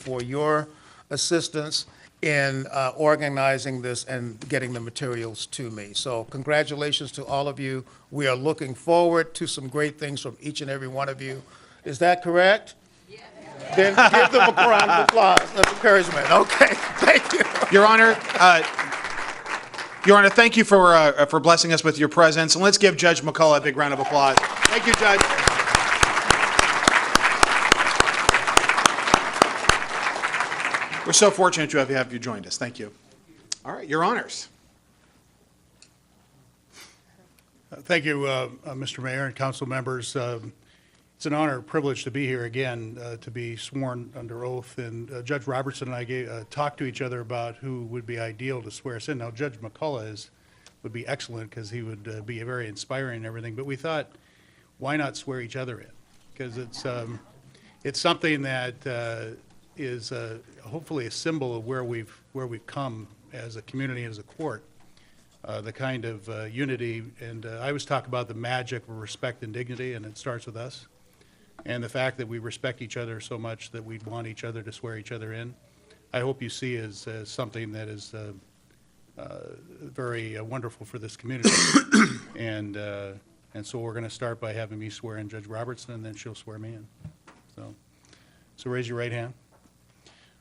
for your assistance in uh, organizing this and getting the materials to me. So congratulations to all of you. We are looking forward to some great things from each and every one of you. Is that correct? Yes. Then give them a round of applause, of encouragement. Okay, thank you. Your Honor, uh, Your Honor, thank you for, uh, for blessing us with your presence, and let's give Judge McCullough a big round of applause. Thank you, Judge. We're so fortunate to have- have you joined us. Thank you. All right, Your Honors. Thank you, uh, uh, Mr. Mayor and council members. Um, It's an honor, and privilege to be here again, uh, to be sworn under oath. And uh, Judge Robertson and I gave- uh, talked to each other about who would be ideal to swear us in. Now, Judge McCullough is, would be excellent because he would uh, be very inspiring and everything. But we thought, why not swear each other in? Because it's, um, it's something that uh, is uh, hopefully a symbol of where we've, where we've come as a community, as a court uh, the kind of uh, unity, and uh, I always talk about the magic of respect and dignity, and it starts with us. And the fact that we respect each other so much that we'd want each other to swear each other in, I hope you see as, as something that is uh, uh, very uh, wonderful for this community. and uh, and so we're going to start by having me swear in Judge Robertson, and then she'll swear me in. So, so raise your right hand.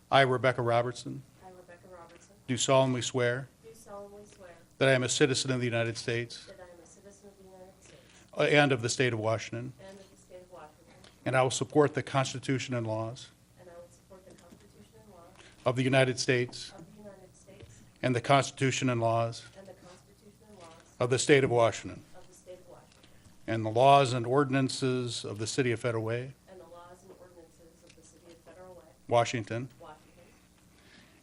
I, Rebecca Robertson, I, Rebecca Robertson, do solemnly swear do solemnly swear that I am a citizen of the United States. that I am a citizen of the United States and of the state of Washington, and of the state of Washington, and I will support the Constitution and laws and I will support the Constitution and laws of the United States of the United States and the Constitution and laws and the Constitution and laws of the state of Washington, of the state of Washington, and the laws and ordinances of the city of Federal Way, and the laws and ordinances of the city of Federal Way, Washington, Washington,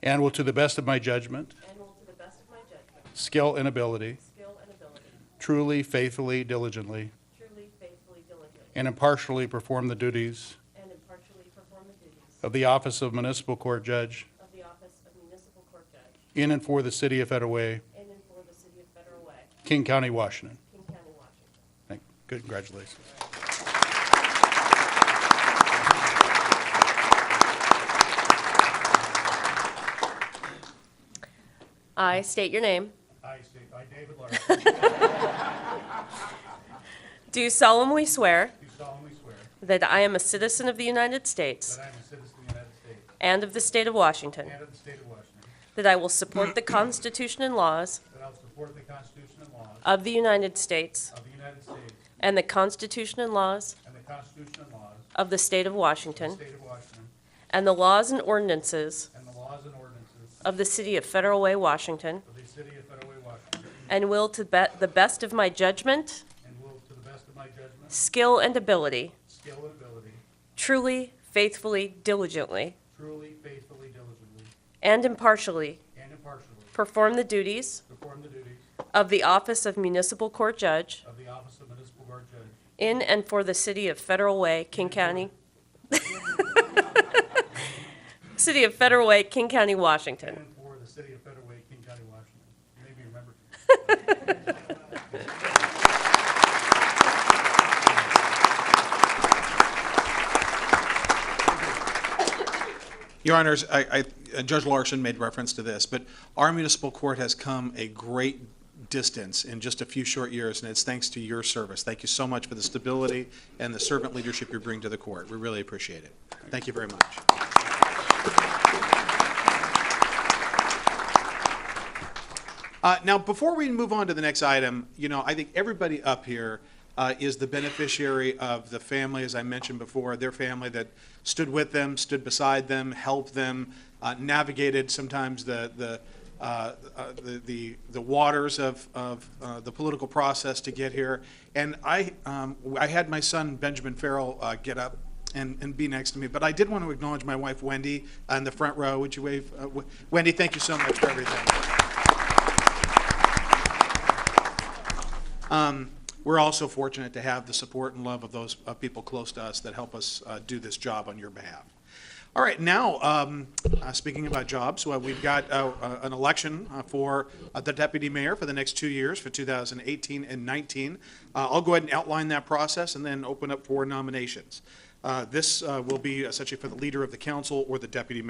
and will to the best of my judgment, and will to the best of my judgment, skill, and ability, skill, and ability, truly, faithfully, diligently, truly, faithfully, diligently, and impartially perform the duties and impartially perform the duties of the office of municipal court judge of the office of municipal court judge in and for the city of Federal Way, in and for the city of Federal Way, King County, Washington. King County, Washington. Thank- Good, congratulations. I state your name. I, David Larson, Do solemnly swear do solemnly swear that I am a citizen of the United States That I am a citizen of the United States and of the state of Washington, and of the state of Washington. that I will support the Constitution and laws That I will support the Constitution and laws of the United States of the United States and the Constitution and laws and the Constitution and laws of the state of of the Washington, state of Washington and the laws and ordinances and the laws and ordinances of the city of Federal Way, Washington, of the city of Federal Way, Washington, and will to be- the best of my judgment, and will, to the best of my judgment, skill, and ability, skill, and ability, truly, faithfully, diligently, truly, faithfully, diligently, and impartially and impartially perform the duties perform the duties of the office of municipal court judge of the office of municipal court judge In and for the city of Federal Way, King County. City of Federal Way, King County, and Washington. and for the city of Federal Way, King County, Washington. You may be remembered. Your Honors, I, I, Judge Larson made reference to this, but our municipal court has come a great distance in just a few short years, and it's thanks to your service. Thank you so much for the stability and the servant leadership you bring to the court. We really appreciate it. Thank you very much. Uh, now, before we move on to the next item, you know, I think everybody up here uh, is the beneficiary of the family, as I mentioned before, their family that stood with them, stood beside them, helped them, uh, navigated sometimes the the. Uh, uh, the, the the waters of of uh, the political process to get here, and I um, I had my son Benjamin Farrell uh, get up and, and be next to me. But I did want to acknowledge my wife, Wendy, on the front row. Would you wave? Uh, w- Wendy, thank you so much for everything. Um, we're also fortunate to have the support and love of those uh, people close to us that help us uh, do this job on your behalf. All right, now, um, uh, speaking about jobs, well, we've got uh, uh, an election uh, for uh, the deputy mayor for the next two years, for 2018 and 19. Uh, I'll go ahead and outline that process and uh, then open up for nominations. Uh, This uh, will be essentially for the leader of the council or the deputy mayor.